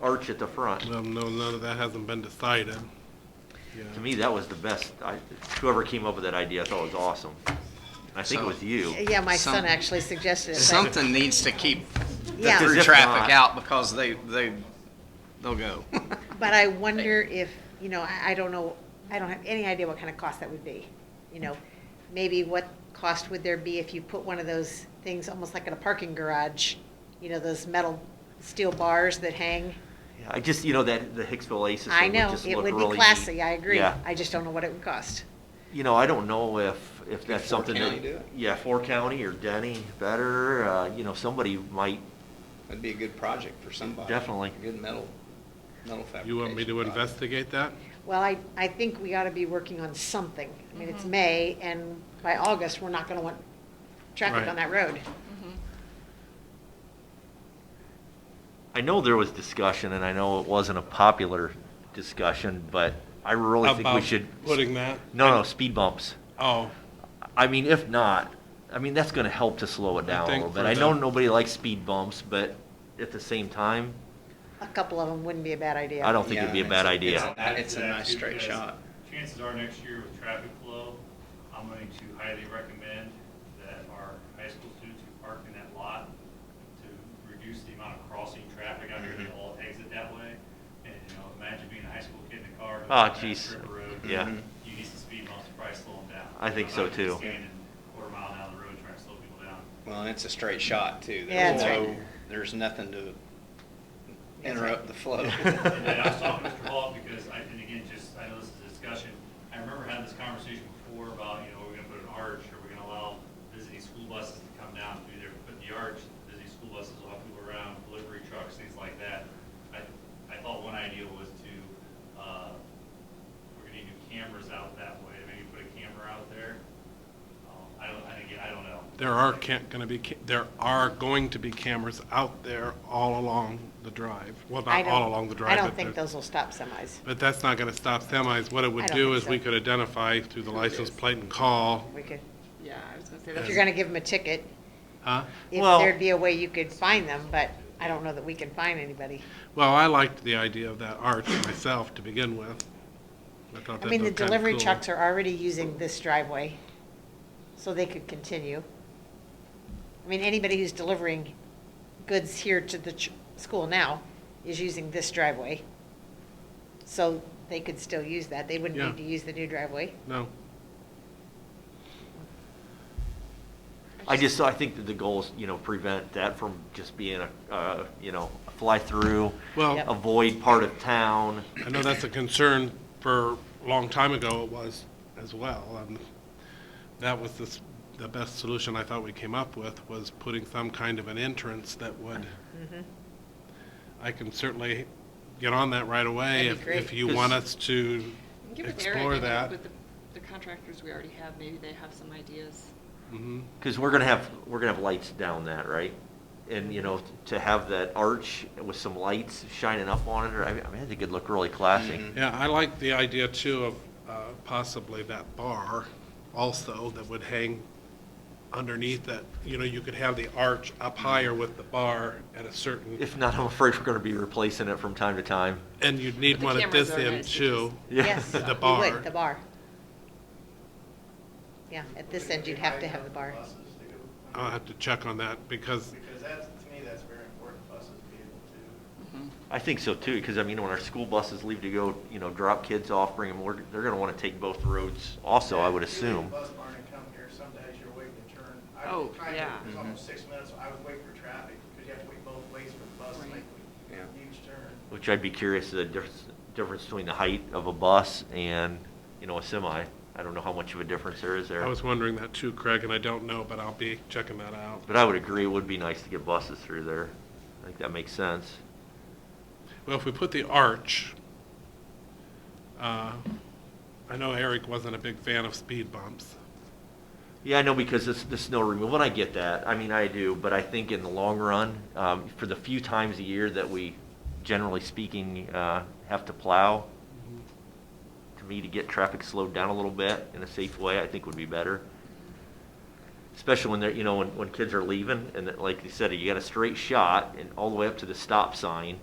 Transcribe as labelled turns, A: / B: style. A: arch at the front.
B: Well, no, none of that hasn't been decided.
A: To
B: Yeah.
A: me, that was the best, I, whoever came up with that idea, I thought was awesome. I think it
C: So-
A: was you.
D: Yeah, my son
C: Some-
D: actually suggested it. but-
C: Something needs to keep the
D: Yeah.
A: Because
C: through
A: if not-
C: traffic out because they, they, they'll go.
D: But I wonder if, you know, I, I don't know, I don't have any idea what kind of cost that would be. You know, maybe what cost would there be if you put one of those things, almost like in a parking garage? You know, those metal, steel bars that hang?
A: Yeah, I just, you know, that, the Hicksville Aces
D: I
A: thing would
D: know,
A: just
D: it
A: look really
D: would
A: neat.
D: be classy, I agree.
A: Yeah.
D: I just don't know what it would cost.
A: You know, I don't know if, if that's
E: Fort
A: something
E: County do
A: that,
E: it?
A: yeah, Four County or Denny better, uh, you know, somebody might,
E: That'd be a good project for somebody.
A: Definitely.
E: A Good metal, metal fabrication.
B: You want me to
E: project.
B: investigate that?
D: Well, I, I think we ought to be working on something. I mean, it's May, and by August, we're not gonna want traffic
B: Right.
D: on that road.
A: I know there was discussion and I know it wasn't a popular discussion, but I really think we
B: About
A: should.
B: Putting that?
A: No, no, speed bumps.
B: Oh,
A: I mean, if not, I mean, that's gonna help to slow it
B: I
A: down a
B: think
A: little bit.
B: for
A: I know
B: the-
A: nobody likes speed bumps, but at the same time,
D: A couple of them wouldn't be a bad idea.
A: I don't think it'd be a
E: Yeah,
A: bad
E: it's-
A: idea.
E: it's- That- it's a
F: That
E: nice
F: too,
E: straight
F: because
E: shot.
F: Chances are next year with traffic flow, I'm going to highly recommend that our high school students who park in that lot to reduce the amount of crossing traffic out here, they
E: Mm-hmm.
F: all exit that way. And, you know, imagine being a high school kid in a car. going
A: Ah,
F: down that
A: jeez.
F: strip road.
A: Yeah.
E: Mhm.
F: You need some speed bumps to probably slow them down.
A: I think
F: You know,
A: so,
F: not just
A: too.
F: Standing quarter mile down the road trying to slow people down.
E: Well, and it's a straight shot too.
D: Yeah,
E: There's
D: that's
E: no-
D: right.
E: There's nothing to
D: That's right.
E: interrupt the flow.
F: And then I was talking to Mr. Hall because I, and again, just, I know this is a discussion, I remember having this conversation before about, you know, we're gonna put an arch, are we gonna allow visiting school buses to come down through there, put the arch, visiting school buses will have people around, delivery trucks, things like that. I, I thought one idea was to, uh, we're gonna need new cameras out that way, maybe put a camera out there. Um, I don't, I, again, I don't know.
B: there are can't, gonna be, ca- there are going to be cameras out there all along the drive. Well,
D: I
B: not all
D: don't-
B: along the drive.
D: I don't
B: but
D: think
B: there-
D: those will stop semis.
B: But that's not gonna stop semis. What it
D: I
B: would
D: don't
B: do
D: think
B: is
D: so.
B: we could identify through the license plate and call,
D: We could,
G: Yeah, I was gonna say,
D: if
G: that's
D: you're gonna give them a ticket,
B: huh?
D: if
A: Well-
D: there'd be a way you could find them, but I don't know that we can find anybody.
B: Well, I liked the idea of that arch myself to begin with. I thought
D: I
B: that
D: mean, the
B: looked kinda
D: delivery
B: cool.
D: trucks are already using this driveway, so they could continue. I mean, anybody who's delivering goods here to the ch- school now is using this driveway. So they could still use that. They wouldn't
B: Yeah.
D: need to use the new driveway.
B: No,
A: I just, I think that the goal is, you know, prevent that from just being a, uh, you know, a fly-through,
B: well.
D: Yep.
A: avoid part of town.
B: I know that's a concern for, a long time ago it was as well. Um, That was the, s- the best solution I thought we came up with, was putting some kind of an entrance that would, I can certainly get on that right away
D: That'd be
B: if, if
D: great.
B: you want us to
G: Give it to Eric, I
B: explore
G: think,
B: that.
G: With the the contractors we already have, maybe they have some ideas.
B: Mhm.
A: Because we're gonna have, we're gonna have lights down that, right? And, you know, to have that arch with some lights shining up on it, or, I mean, I think it'd look really classy.
E: Mhm.
B: Yeah, I like the idea too of uh, possibly that bar also that would hang underneath that, you know, you could have the arch up higher with the bar at a certain
A: If not, I'm afraid we're gonna be replacing it from time to time.
B: And you'd need
G: But the
B: one at
G: cameras
B: this
G: are
B: end
G: nice, which
B: too.
A: Yeah.
D: Yes,
B: The
D: you
B: bar.
D: would, the bar. Yeah, at this end, you'd have to have the bar.
F: Buses, they go-
B: I'll have to check on that because,
F: Because that's, to me, that's very important, buses be able to
A: I think so too, because I mean, when our school buses leave to go, you know, drop kids off, bring them, we're- they're gonna wanna take both roads also, I would assume.
H: If you leave the bus barn and come here, some days you're waiting to turn. I
G: Oh,
H: tried to-
G: yeah.
H: It was
A: Mm-hmm.
H: almost six minutes, I would wait for traffic, because you have to wait both ways for the bus to
G: Right.
H: make
E: Yeah.
H: a huge turn.
A: Which I'd be curious the difference, difference between the height of a bus and, you know, a semi. I don't know how much of a difference there is
B: I
A: there.
B: was wondering that too, Craig, and I don't know, but I'll be checking that out.
A: But I would agree, it would be nice to get buses through there. I think that makes sense.
B: Well, if we put the arch, uh, I know Eric wasn't a big fan of speed bumps.
A: Yeah, I know, because this, the snow removal, and I get that, I mean, I do, but I think in the long run, um, for the few times a year that we, generally speaking, uh, have to plow, to me, to get traffic slowed down a little bit in a safe way, I think would be better. Especially when they're, you know, when, when kids are leaving, and that, like you said, you got a straight shot and all the way up to the stop sign,